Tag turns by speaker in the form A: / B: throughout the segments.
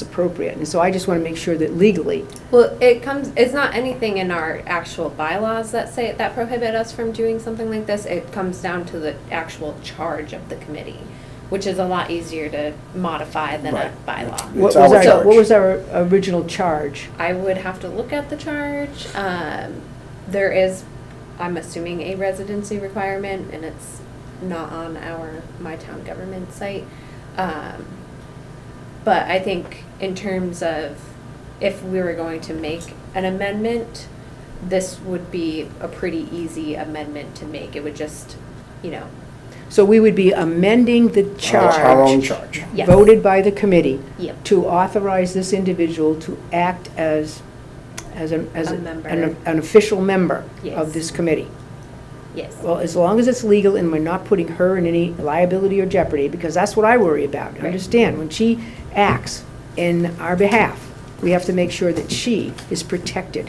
A: it's appropriate. And so I just want to make sure that legally,
B: Well, it comes, it's not anything in our actual bylaws that say, that prohibit us from doing something like this. It comes down to the actual charge of the committee, which is a lot easier to modify than a
C: Right.
B: bylaw.
A: what was
C: It's our
A: our,
C: charge.
A: what was our original charge?
B: I would have to look at the charge. Um, there is, I'm assuming, a residency requirement, and it's not on our, my town government site. Um, but I think in terms of if we were going to make an amendment, this would be a pretty easy amendment to make. It would just, you know,
A: So we would be amending the
C: Our- Our own
A: charge
C: charge.
B: Yes.
A: voted by the committee
B: yep.
A: to authorize this individual to act as, as an, as
B: A
A: an-
B: member.
A: an an official member of
B: Yes.
A: this committee.
B: yes.
A: Well, as long as it's legal and we're not putting her in any liability or jeopardy, because that's what I worry about.
B: Right.
A: Understand, when she acts in our behalf, we have to make sure that she is protected.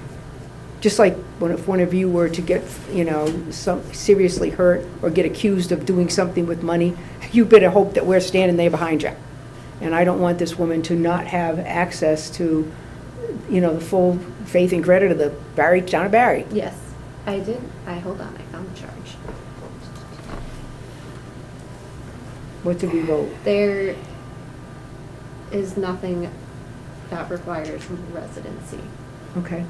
A: Just like when if one of you were to get, you know, some, seriously hurt or get accused of doing something with money, you better hope that we're standing there behind you. And I don't want this woman to not have access to, you know, the full faith and credit of the Barry, town of Barry.
B: Yes, I did. I, hold on, I found the charge.
A: What did we vote?
B: There is nothing that requires residency
A: Okay.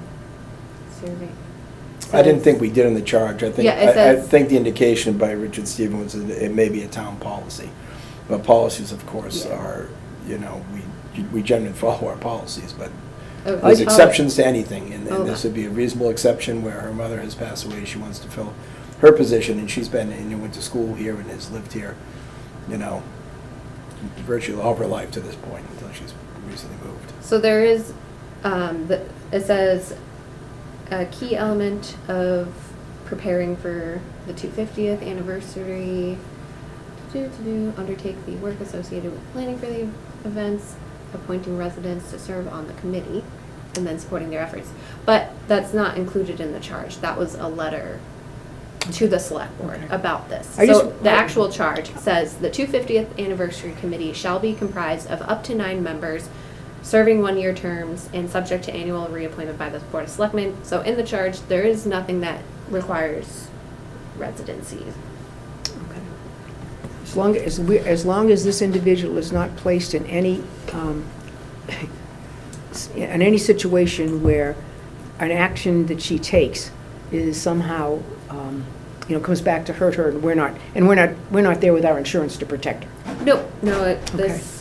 B: survey.
C: I didn't think we did in the charge. I think,
B: Yeah, it
C: I- I
B: says-
C: think the indication by Richard Stevens was that it may be a town policy. But policies, of course,
B: Yeah.
C: are, you know, we, we generally follow our policies, but
B: Oh,
C: there's
B: oh,
C: exceptions to anything. And and
B: Okay.
C: this would be a reasonable exception where her mother has passed away, she wants to fill her position, and she's been, and went to school here and has lived here, you know, virtually all of her life to this point, until she's recently moved.
B: So there is, um, the, it says, a key element of preparing for the two fiftieth anniversary, to do, undertake the work associated with planning for the events, appointing residents to serve on the committee, and then supporting their efforts. But that's not included in the charge, that was a letter to the select board
A: Okay.
B: about this.
A: I
B: So
A: just-
B: the actual charge says the two fiftieth anniversary committee shall be comprised of up to nine members serving one-year terms and subject to annual reappointment by the Board of Selectmen. So in the charge, there is nothing that requires residency.
A: As long as, we, as long as this individual is not placed in any, um, s- in any situation where an action that she takes is somehow, um, you know, comes back to hurt her, and we're not, and we're not, we're not there with our insurance to protect her.
B: No, no, it- this,
A: Okay.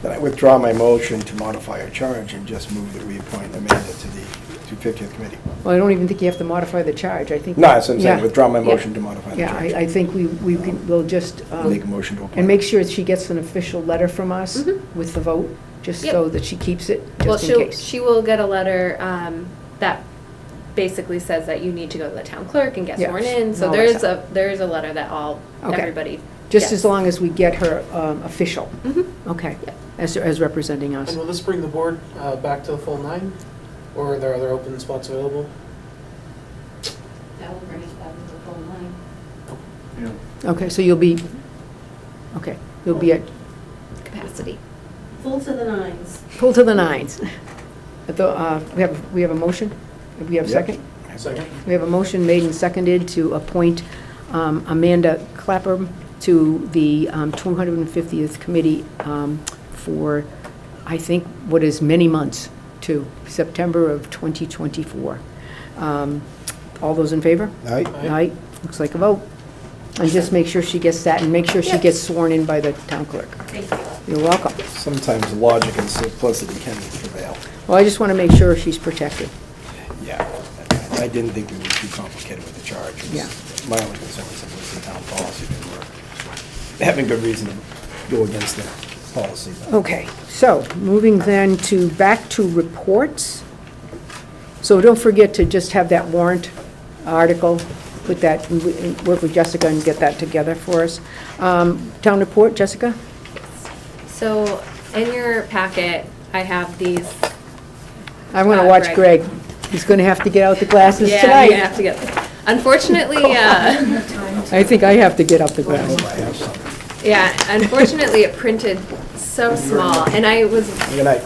C: Then I withdraw my motion to modify our charge and just move that we appoint Amanda to the 250th committee.
A: Well, I don't even think you have to modify the charge, I think.
C: No, that's what I'm saying,
A: Yeah.
C: withdraw my
B: Yeah.
C: motion to modify the
A: Yeah, I,
C: charge.
A: I think we, we can, we'll just. um,
C: Make a motion to appoint.
A: And make sure that she gets an official letter from us
B: Mhm.
A: with the vote, just so
B: Yep.
A: that she keeps it,
B: well,
A: just in
B: she'll,
A: case.
B: she will get a letter, um, that basically says that you need to go to the town clerk and get
A: Yes,
B: sworn in.
A: and
B: So
A: all
B: there
A: that
B: is
A: stuff.
B: a, there is a letter that all,
A: Okay.
B: everybody
A: Just as
B: gets.
A: long as we get her um, official,
B: Mhm.
A: okay,
B: Yep.
A: as, as representing us.
D: And will this bring the board uh, back to the full nine, or are there other open spots available?
E: That will bring it back to the full line.
A: Okay, so you'll be, okay, you'll be at,
B: capacity.
E: Full to the nines.
A: pull to the nines. At the, uh, We have, we have a motion? We have a
C: Yep.
A: second?
D: Second?
A: We have a motion made and seconded to appoint um, Amanda Clapham to the um, 250th Committee um, for, I think, what is many months to September of 2024. Um, All those in favor?
C: Aye.
D: Aye.
A: Aye, looks like a vote. And just make sure she gets that, and make sure she
B: Yep.
A: gets sworn in by the town clerk.
E: Thank you.
A: You're welcome.
C: Sometimes logic and simplicity can prevail.
A: Well, I just want to make sure she's protected.
C: Yeah, I I didn't think we were too complicated with the charge. It was-
A: Yeah.
C: My only concern was it was the town policy, and we're having good reason to go against the policy. but-
A: Okay, so, moving then to, back to reports. So don't forget to just have that warrant article, put that, work with Jessica and get that together for us. Um, Town report, Jessica?
B: So in your packet, I have these.
A: I want to
B: Uh,
A: watch
B: Greg.
A: Greg. He's going to have to get out the glasses
B: Yeah,
A: tonight.
B: I'm gonna have to get. Unfortunately, uh,
A: I think I have to get out the glasses.
B: yeah, unfortunately, it printed so small, and I was
C: Good night.